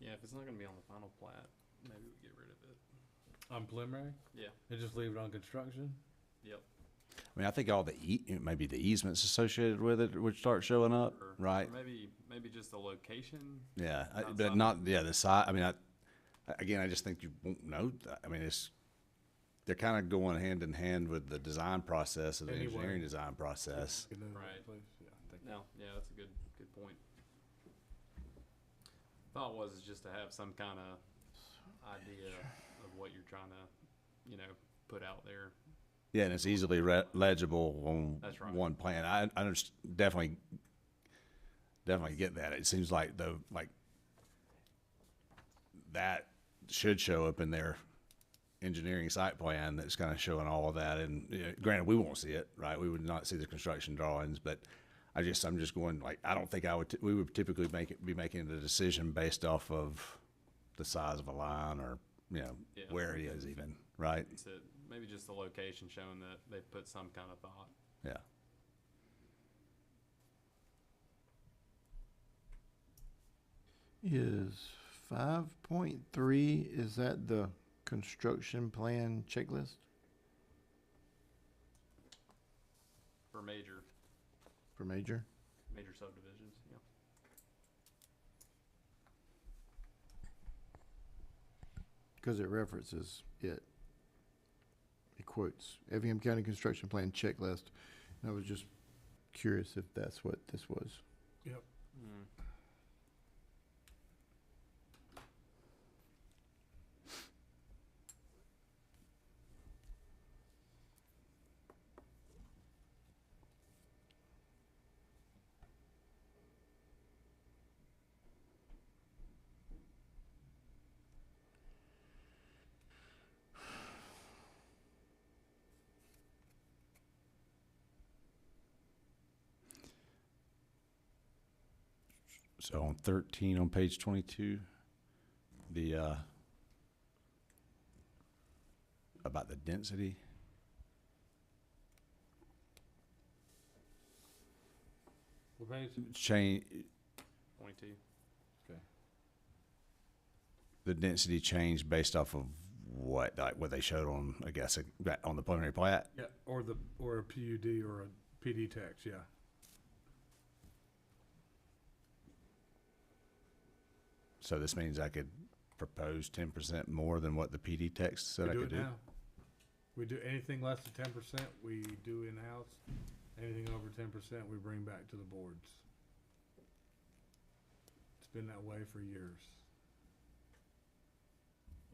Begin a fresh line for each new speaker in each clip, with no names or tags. if it's not gonna be on the final plat, maybe we get rid of it.
On preliminary,
Yeah,
they just leave it on construction.
yep.
I mean, I think all the e, ea- maybe the easements associated with it would start showing up,
or- or
right?
Maybe, maybe just the location.
Yeah, I-
Not
but
some.
not yeah the side. I mean, I again, I just think you won't know. that. I mean, it's they're kind of going hand in hand with the design process and the
Anyway.
engineering design process.
You know,
Right.
place, yeah, I think-
No, yeah, that's a good, good point. Thought was is just to have some kind of idea of what you're trying to, you know, put out there.
Yeah, and it's easily re- legible on
That's right.
one plan. I, I underst- definitely, definitely get that. It seems like though, like that should show up in their engineering site plan. That's kind of showing all of that. And you know, granted, we won't see it, right? We would not see the construction drawings, but I just, I'm just going like, I don't think I would. T- we would typically make it be making the decision based off of the size of a line or you know
Yeah.
where it is, even right?
So maybe just the location showing that they put some kind of thought.
Yeah.
Is five point three, is that the construction plan checklist?
For major,
For major,
major subdivisions, yeah.
because it references it. It quotes Effingham County Construction Plan Checklist, and I was just curious if that's what this was.
Mm.
So on thirteen, on page twenty-two, the, uh, about the density.
What page?
Change,
Twenty-two.
the density changed based off of what, like what they showed on, I guess, uh, that- on the preliminary plat?
Yeah, or the, or a PUD or a PD tax, yeah.
So this means I could propose ten percent more than what the PD text said
We
I
do
could
it
do?
now. We do anything less than ten percent, we do in-house. Anything over ten percent, we bring back to the boards. It's been that way for years.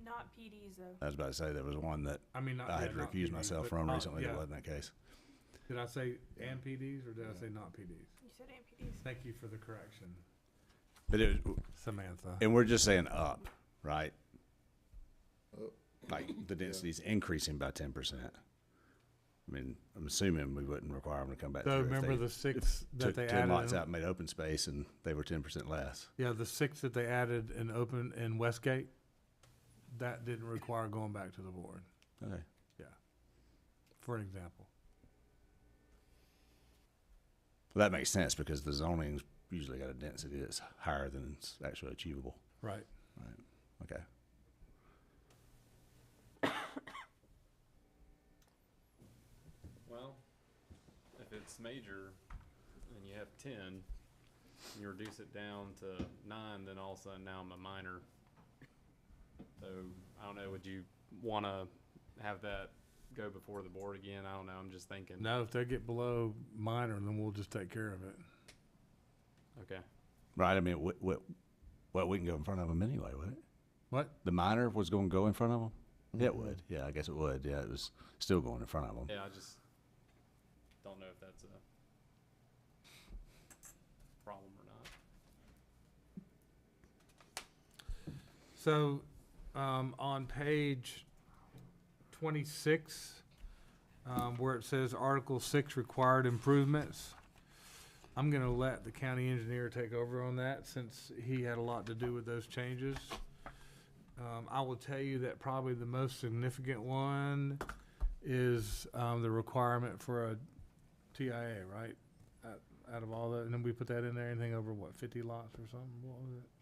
Not PDs though.
I was about to say, there was one that
I mean, not.
I
yeah,
had
not
recused
PDs,
myself
but
from
not-
recently, that
yeah.
wasn't that case.
Did I say and PDs or did I
Yeah.
say not PDs?
You said and PDs.
Thank you for the correction,
But it, was-
Samantha.
And we're just saying up, right? Like the density's increasing by ten percent. I mean, I'm assuming we wouldn't require them to come back
So
through if
remember
they
the six that
took
they
ten lots
added,
out
in-
and made open space and they were ten percent less.
yeah, the six that they added in open, in Westgate? That didn't require going back to the board.
Okay.
for an example.
Well, that makes sense because the zoning's usually got a density that's higher than it's actually achievable.
Right.
Okay.
Well, if it's major and you have ten, and you reduce it down to nine, then all of a sudden now I'm a minor. So I don't know, would you wanna have that go before the board again? I don't know, I'm just thinking.
Now, if they get below minor, then we'll just take care of it.
Okay,
Right, I mean, what, what, well, we can go in front of them anyway, would it?
What?
The minor was gonna go in front of them? Yeah, it would. Yeah, I guess it would. Yeah, it was still going in front of them.
yeah, I just don't know if that's a problem or not.
So, um, on page twenty-six, um, where it says Article Six required improvements, I'm gonna let the county engineer take over on that since he had a lot to do with those changes. Um, I will tell you that probably the most significant one is, um, the requirement for a TIA, right? Out- Out of all the, and then we put that in there, anything over what, fifty lots or something, what was it?